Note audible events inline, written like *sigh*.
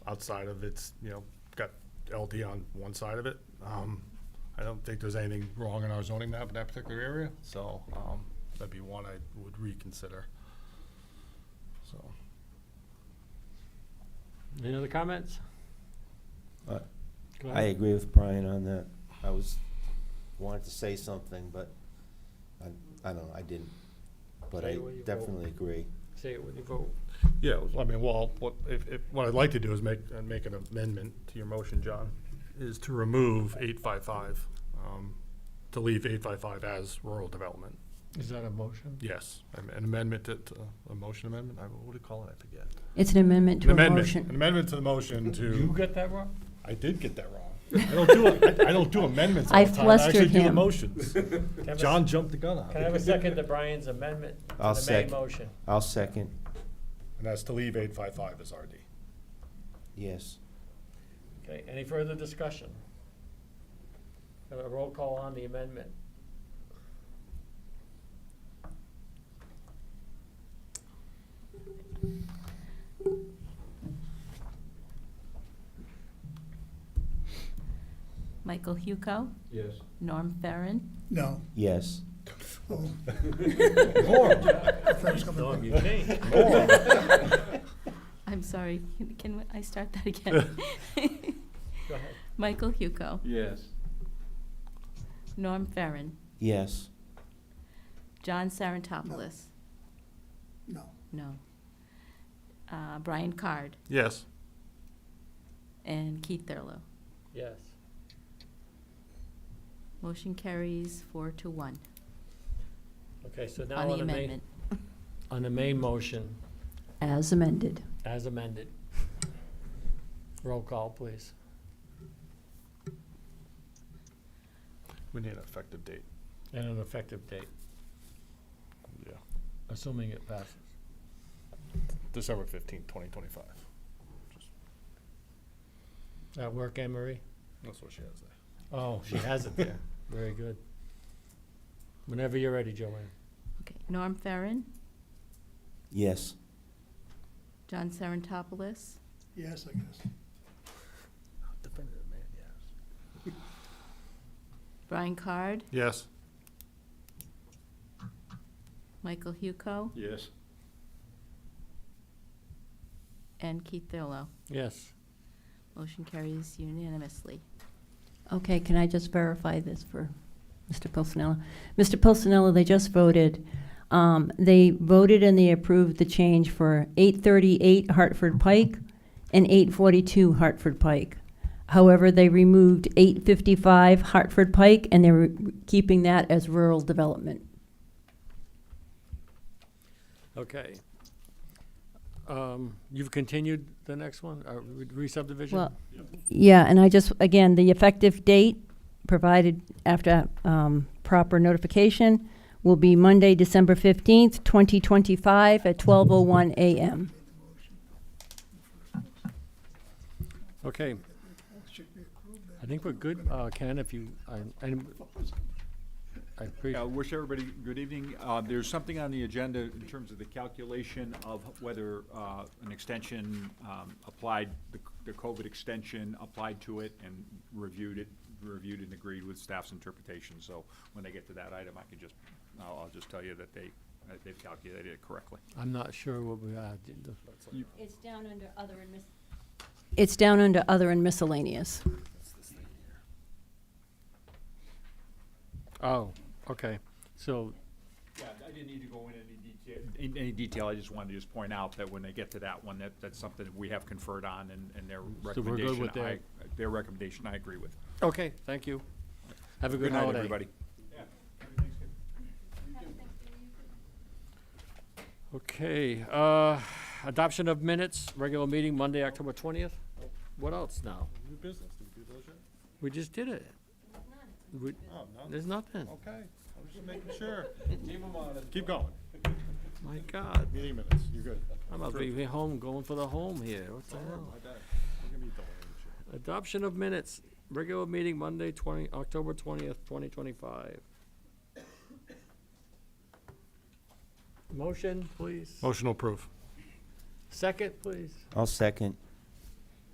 outside of it's, you know, got LD on one side of it. Um, I don't think there's anything wrong in our zoning map in that particular area, so, um, that'd be one I would reconsider. So, Any other comments? Uh, Go I ahead. agree with Brian on that. I was, wanted to say something, but I, I don't know, I didn't. But Say I what you vote. definitely agree. Say it with your vote. yeah, I mean, well, what, if, if, what I'd like to do is make, uh, make an amendment to your motion, John, is to remove eight five five, um, to leave eight five five as rural development. Is that a motion? Yes, an an amendment to, to- a motion amendment, I, what do you call it, I forget. It's an An amendment to a amendment, an motion. amendment to the motion You to, got that wrong? I did get that wrong. I don't do, I I don't do amendments all I the time, I actually flustered do the him. motions. Can I have a- John jumped the gun on Can I have a it. second to Brian's amendment? to I'll the main second. motion? I'll second, And that's to leave eight five five as RD. yes. Okay, any further discussion? Have a roll call on the amendment. Michael Huco, Yes. Norm Farren, No. Yes. Oh, I thought it was coming Norm, back. you changed. I'm sorry, can- can I start that again? Go ahead. Michael Huco, Yes. Norm Farren, Yes, John Sarantopoulos, No, no. Uh, Brian Card Yes, and Keith Thurlow. Yes. Motion carries four to one Okay, so now on on the the main, amendment. on the main motion, As amended. as amended. Roll call, please. we need an effective date. And an effective date, Yeah, assuming it passes. December fifteenth, twenty twenty-five. That work, Anne Marie? That's what she has there. Oh, she has it there. *laughs* Very good. Whenever you're ready, Joanne. Okay, Norm Farren, yes. John Sarantopoulos, yes, I guess. Definitive, man, yes. Brian Card, Yes. Michael Huco, Yes. and Keith Thurlow. Yes. Motion carries unanimously. Okay, can I just verify this for Mr. Pulcinella? Mr. Pulcinella, they just voted, um, they voted and they approved the change for eight thirty-eight Hartford Pike and eight forty-two Hartford Pike. However, they removed eight fifty-five Hartford Pike and they're keeping that as rural development. Okay. Um, You've continued the next one, uh, re- re-subdivision? Well, yeah, and I just, again, the effective date, provided after um, proper notification, will be Monday, December 15th, 2025, at 12:01 a.m. Okay, Should be approved then. I think we're good, uh, Ken, if you, I- and I I appreciate, wish everybody good evening. Uh, There's something on the agenda in terms of the calculation of whether uh, an extension um, applied, the the COVID extension applied to it and reviewed it, reviewed and agreed with staff's interpretation. So when they get to that item, I can just, I'll I'll just tell you that they, that they've calculated it correctly. I'm not sure what we, uh, did the- It's down under other and mis... It's down under other and miscellaneous. oh, okay. So, Yeah, I didn't need to go in any detail. In any detail, I just wanted to just point out that when they get to that one, that, that's something that we have conferred on and, and their we're good recommendation. with I- Their recommendation, I agree with. okay, thank you. Have a good Good night, holiday. everybody. Okay, uh, adoption of minutes, regular meeting Monday, October twentieth. What else now? New business, do we do those yet? We just did it. We- Oh, no, There's nothing. okay, I'm just making *laughs* sure. Keep them on. Keep going, My God, meeting minutes, you're good. I'm about to be home, going for the home here. What the hell? My bad. You're gonna be delayed and shit. Adoption of minutes, regular meeting Monday, twenty, October twentieth, twenty twenty-five. Motion, please. Motion to approve. Second, please. I'll second,